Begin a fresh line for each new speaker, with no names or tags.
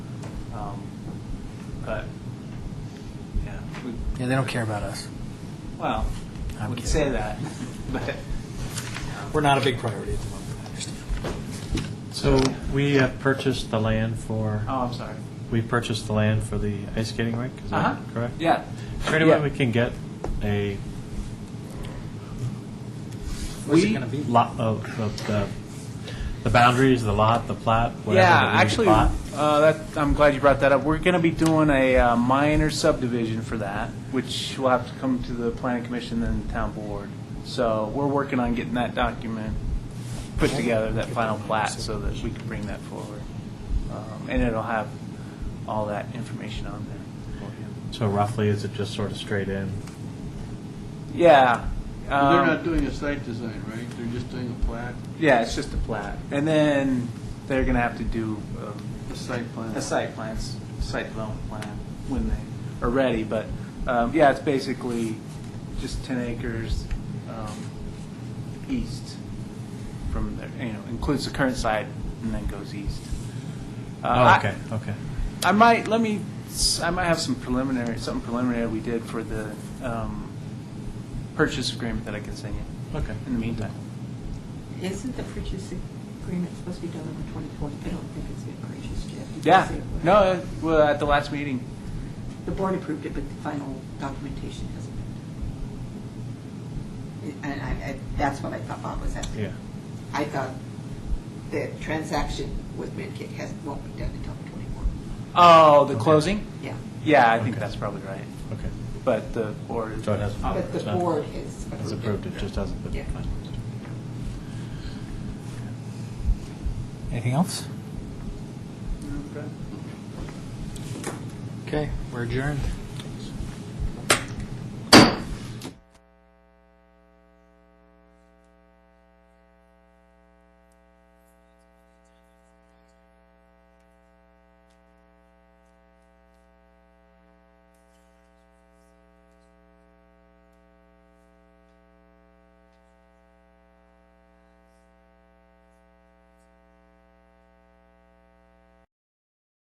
Um,
Yeah, they don't care about us.
Well,
I'm
we can
kidding.
say that, but
We're not a big priority at the moment, I understand.
So we have purchased the land for,
oh, I'm sorry.
we purchased the land for the ice skating rink, is
Uh huh.
that correct?
Yeah.
Is there any
Yeah.
way we can get a
Where's it
We-
gonna be?
lot of, of the, the boundaries, the lot, the plat, whatever?
yeah,
that we
actually,
bought?
uh, that, I'm glad you brought that up. We're going to be doing a uh, minor subdivision for that, which will have to come to the planning commission and the town board. So we're working on getting that document put together, that final plat, so that we can bring that forward, um, and it'll have all that information on there for you.
So roughly, is it just sort of straight in?
Yeah.
They're
um,
not doing a site design, right? They're just doing a plat,
Yeah, it's just a plat. And then they're going to have to do um,
a site plan.
a site plans, site development plan when they are ready. But um, yeah, it's basically just 10 acres um, east from there, you know, includes the current site and then goes east. Uh,
Oh,
I-
okay, okay.
I might, let me, s- I might have some preliminary, something preliminary we did for the um, purchase agreement that I can send you
Okay.
in the meantime.
Isn't the purchase agreement supposed to be done over 2020? I don't think it's been purchased yet. Did you
Yeah,
say it was?
no, uh, well, at the last meeting,
The board approved it, but the final documentation hasn't been. done. And I, I, that's what I thought Bob was asking.
Yeah.
I thought the transaction with Midkick has, won't be done until 24.
Oh, the
Okay.
closing?
Yeah.
Yeah, I think
Okay.
that's probably right.
Okay.
But the board.
So it hasn't- Oh,
But the
it's not-
board has approved it.
It's approved, it just hasn't been
Yeah.
finalized.
Anything else? Okay, we're adjourned.